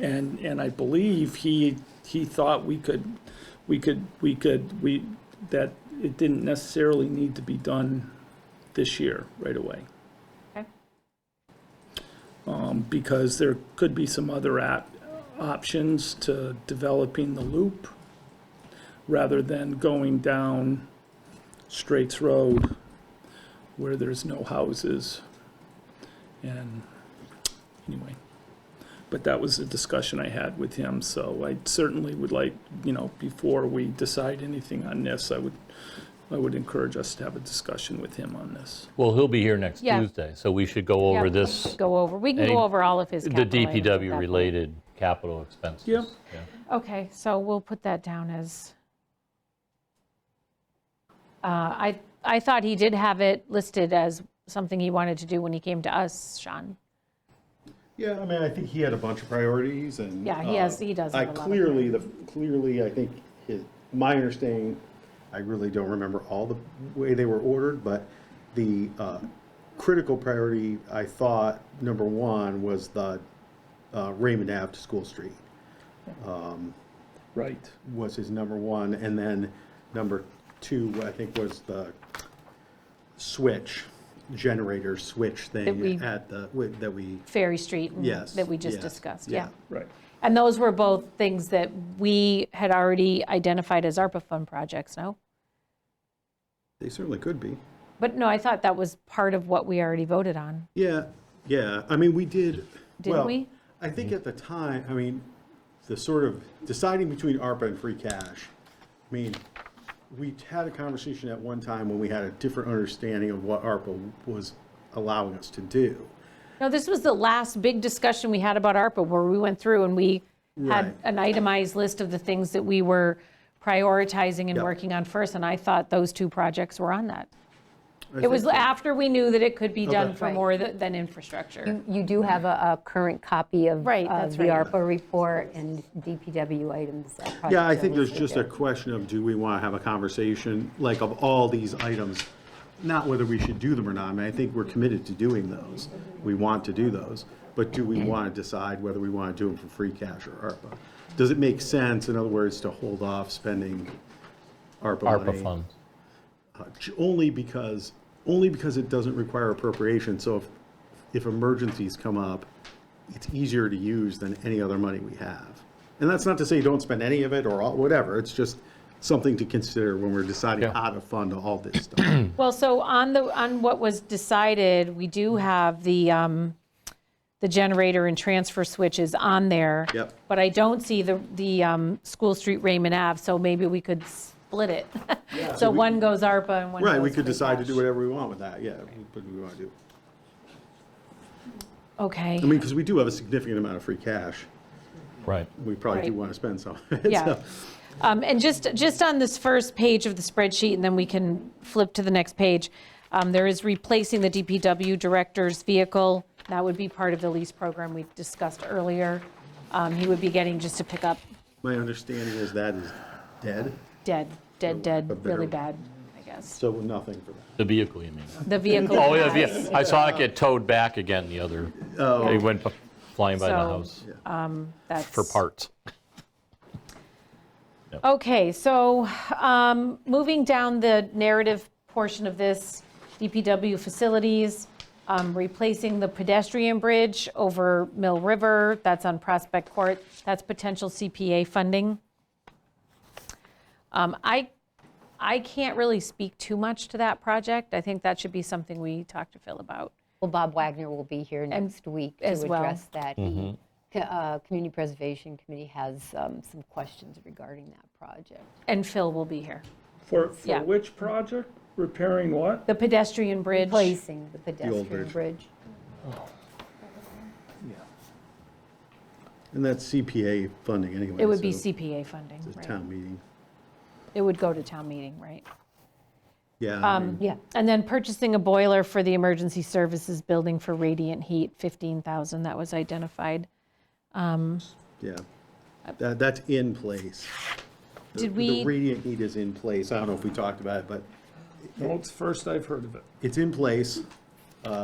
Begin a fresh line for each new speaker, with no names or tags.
And, and um, I believe he, he thought we could, we could, we could, we, that it didn't necessarily need to be done this year, right away.
Okay.
Um, Because there could be some other app, options to developing the loop rather than going down Straits Road where there's no houses. And, anyway but that was a discussion I had with him, so I certainly would like, you know, before we decide anything on this, I would, I would encourage us to have a discussion with him on this.
Well, he'll be here next
Yeah.
Tuesday, so we should go over
Yeah,
this,
Go over, we can
any-
go over all of his
the
capital items at that point.
DPW-related capital expenses.
Yeah.
Okay, so we'll put that down as, Uh, I, I thought he did have it listed as something he wanted to do when he came to us, Sean.
Yeah, I mean, I think he had a bunch of priorities and.
Yeah, he
uh,
has- he does
I
have a lot of
clearly, the, clearly, I think his, my understanding, I really don't remember all the way they were ordered, but the, uh, critical priority, I thought, number one, was the, uh, Raymond Ave to School Street
Right.
was his number one, and then number two, I think, was the switch, generator switch
That we-
thing at the, wi- that we,
Ferry Street. and-
Yes,
That we just
yes,
discussed,
yeah.
yeah.
Right.
And those were both things that we had already identified as ARPA fund projects, no?
they certainly could be.
But no, I thought that was part of what we already voted on.
Yeah, yeah, I mean, we did.
Did
well,
we?
I think at the time, I mean, the sort of deciding between ARPA and free cash, I mean, we had a conversation at one time when we had a different understanding of what ARPA was allowing us to do.
No, this was the last big discussion we had about ARPA, where we went through and we had
Right.
an itemized list of the things that we were prioritizing and
Yep.
working on first, and I thought those two projects were on that.
I
It was
think-
after we knew that it could be done
Okay.
for
Right.
more th- than infrastructure.
You do have a a current copy of
Right,
of
that's
the
right.
ARPA report and DPW items. that probably
Yeah, I
are
think there's
listed
just a
there.
question of, do we want to have a conversation, like of all these items? Not whether we should do them or not, I mean, I think we're committed to doing those. We want to do those, but do we want to decide whether we want to do them for free cash or ARPA? Does it make sense, in other words, to hold off spending ARPA money?
ARPA funds.
Uh, j- Only because, only because it doesn't require appropriation, so if, if emergencies come up, it's easier to use than any other money we have. And that's not to say you don't spend any of it or all- whatever, it's just something to consider when we're deciding
Yeah.
how to fund all this stuff.
Well, so on the, on what was decided, we do
Mm-hmm.
have the, um, the generator and transfer switches on there.
Yep.
But I don't see the, the um, School Street Raymond Ave, so maybe we could split it. So one goes ARPA and one goes.
Right, we could
free
decide to do
cash.
whatever we want with that, yeah, what do we want to do. I
Okay,
mean, because we do have a significant amount of free cash,
Right.
we probably do
Right.
want to spend some. of it,
yeah.
so-
Um, And just, just on this first page of the spreadsheet, and then we can flip to the next page, um, there is replacing the DPW director's vehicle. That would be part of the lease program we discussed earlier. Um, He would be getting just to pick up
My understanding is that is dead,
dead, dead,
A
dead,
better-
really bad, I guess.
so nothing for that.
The vehicle, you mean?
The vehicle.
Oh, yeah,
has-
yeah. I saw it get towed back again the other, it went flying by the
So-
house
That's
for parts.
Okay, so um, moving down the narrative portion of this, DPW facilities, um, replacing the pedestrian bridge over Mill River, that's on Prospect Court, that's potential CPA funding. Um, I, I can't really speak too much to that project. I think that should be something we talk to Phil about.
Well, Bob Wagner will be here next week to
as well.
address that. He- Co- uh, Community Preservation Committee has um, some questions regarding that project.
And Phil will be here.
For,
Yeah.
for which project? Repairing what?
The pedestrian bridge.
Placing the pedestrian
bridge.
bridge.
And that's CPA funding anyway.
It would be
so
CPA funding,
it's a
right?
Town meeting,
It would go to town meeting, right?
yeah.
Um,
I mean,
Yeah,
And then purchasing a boiler for the emergency services building for radiant heat, 15,000, that was identified.
Yeah, that, that's in place. The-
uh, Did we,
The radiant heat is in place, I don't know if we talked about it, but
No, it's first I've heard of it.
it's in place,